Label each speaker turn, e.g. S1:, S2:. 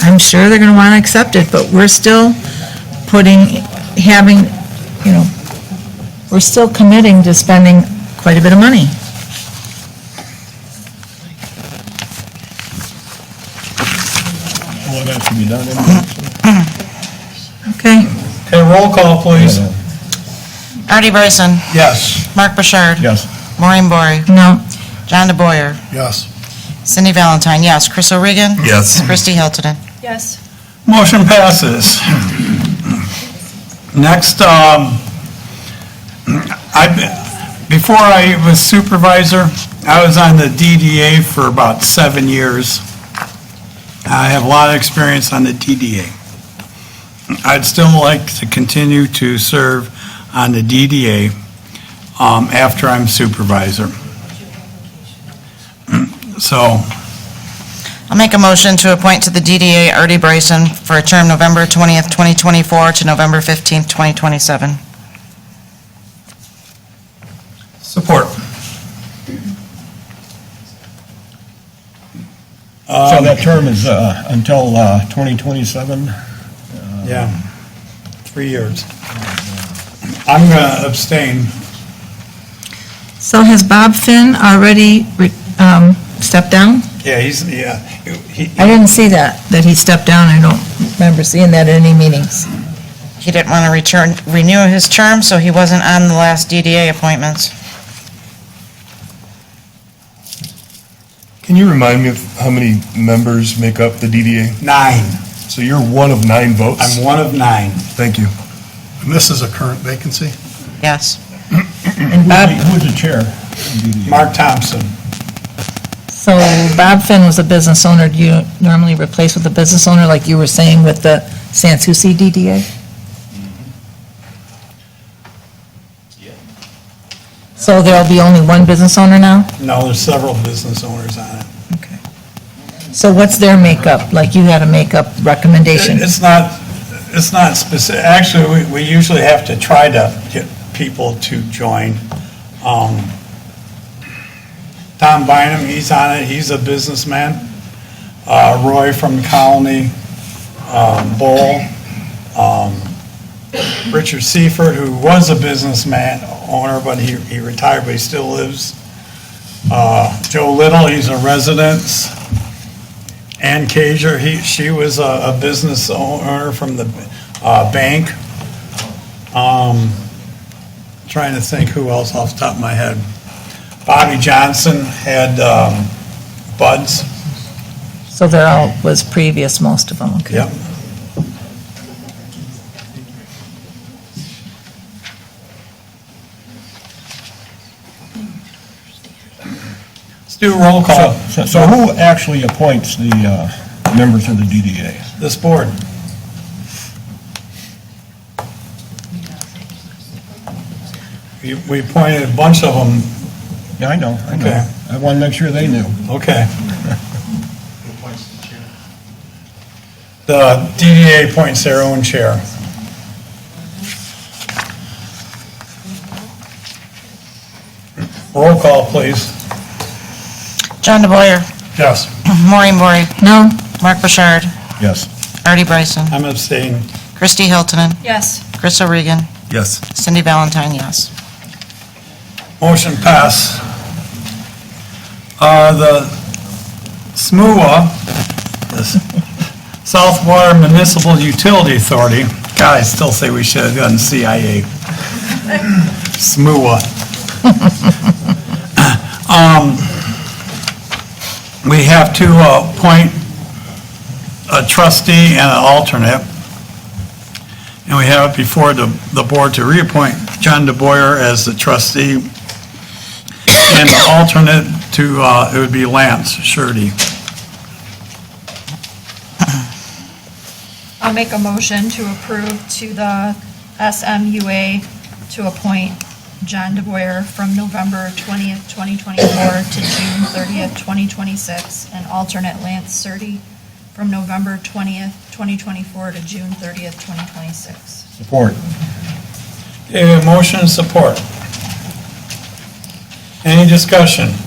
S1: I'm sure they're going to want to accept it, but we're still putting, having, you know, we're still committing to spending quite a bit of money.
S2: Well, that should be done anyway.
S1: Okay?
S3: Okay, roll call, please.
S4: Artie Bryson,
S3: Yes.
S4: Mark Bouchard.
S2: Yes.
S4: Maureen Bory,
S1: No,
S4: John DeBoyer,
S3: Yes.
S4: Cindy Valentine, yes. Chris O'Regan.
S2: Yes.
S4: Kristi Hiltonen.
S5: Yes.
S3: Motion passes. Next, um, I, before I was supervisor, I was on the DDA for about seven years. I have a lot of experience on the DDA. I'd still like to continue to serve on the DDA um, after I'm supervisor. So,
S4: I'll make a motion to appoint to the DDA Artie Bryson for a term November 20th, 2024 to November 15th, 2027.
S3: support.
S2: So that term is uh, until uh, 2027?
S3: Yeah, three years. I'm going to abstain.
S1: so has Bob Finn already re- um, stepped down?
S3: Yeah, he's, yeah, he,
S1: I didn't see that, that he stepped down, I don't remember seeing that at any meetings.
S4: He didn't want to return, renew his term, so he wasn't on the last DDA appointments.
S6: Can you remind me of how many members make up the DDA?
S3: nine.
S6: So you're one of nine votes?
S3: I'm one of nine.
S6: Thank you.
S7: And this is a current vacancy?
S4: Yes.
S1: And Bob,
S2: Who's the chair? DDA?
S3: Mark Thompson.
S1: so Bob Finn was a business owner, do you normally replace with a business owner, like you were saying with the Sanssouci DDA? So there'll be only one business owner now?
S3: No, there's several business owners on it.
S1: Okay. So what's their makeup, like you had a makeup recommendation?
S3: It- It's not, it's not specific, actually, we, we usually have to try to get people to join. Um, Tom Bynum, he's on it, he's a businessman. Uh, Roy from Colony, um, Bull, um, Richard Seifert, who was a businessman owner, but he, he retired, but he still lives. Uh, Joe Little, he's a resident. Ann Cager, he, she was a, a business owner from the, uh, bank. Um, trying to think who else off the top of my head. Bobby Johnson had, um, Buds,
S1: So they're all, was previous, most of them, okay.
S3: yep. Let's do a roll call,
S2: So- So who actually appoints the uh, members of the DDA?
S3: this board. We we appointed a bunch of them
S2: Yeah, I know, I
S3: Okay.
S2: know. I want to make sure they knew.
S3: Okay. The DDA appoints their own chair. Roll call, please.
S4: John DeBoyer,
S3: Yes.
S4: Maureen Bory,
S1: No,
S4: Mark Bouchard,
S2: Yes.
S4: Artie Bryson,
S3: I'm abstaining.
S4: Kristi Hiltonen,
S5: Yes.
S4: Chris O'Regan,
S6: Yes.
S4: Cindy Valentine, yes.
S3: Motion pass. Uh, The SMUA, the South Water Municipal Utility Authority, God, I still say we should have done CIA. SMUA. Um, We have to uh, appoint a trustee and an alternate. And we have it before the, the board to reappoint John DeBoyer as the trustee and the alternate to, uh, it would be Lance Shurdy.
S5: I'll make a motion to approve to the SMUA to appoint John DeBoyer from November 20th, 2024 to June 30th, 2026, and alternate Lance Surtee from November 20th, 2024 to June 30th, 2026.
S2: Support.
S3: Okay, we have motion and support. Any discussion?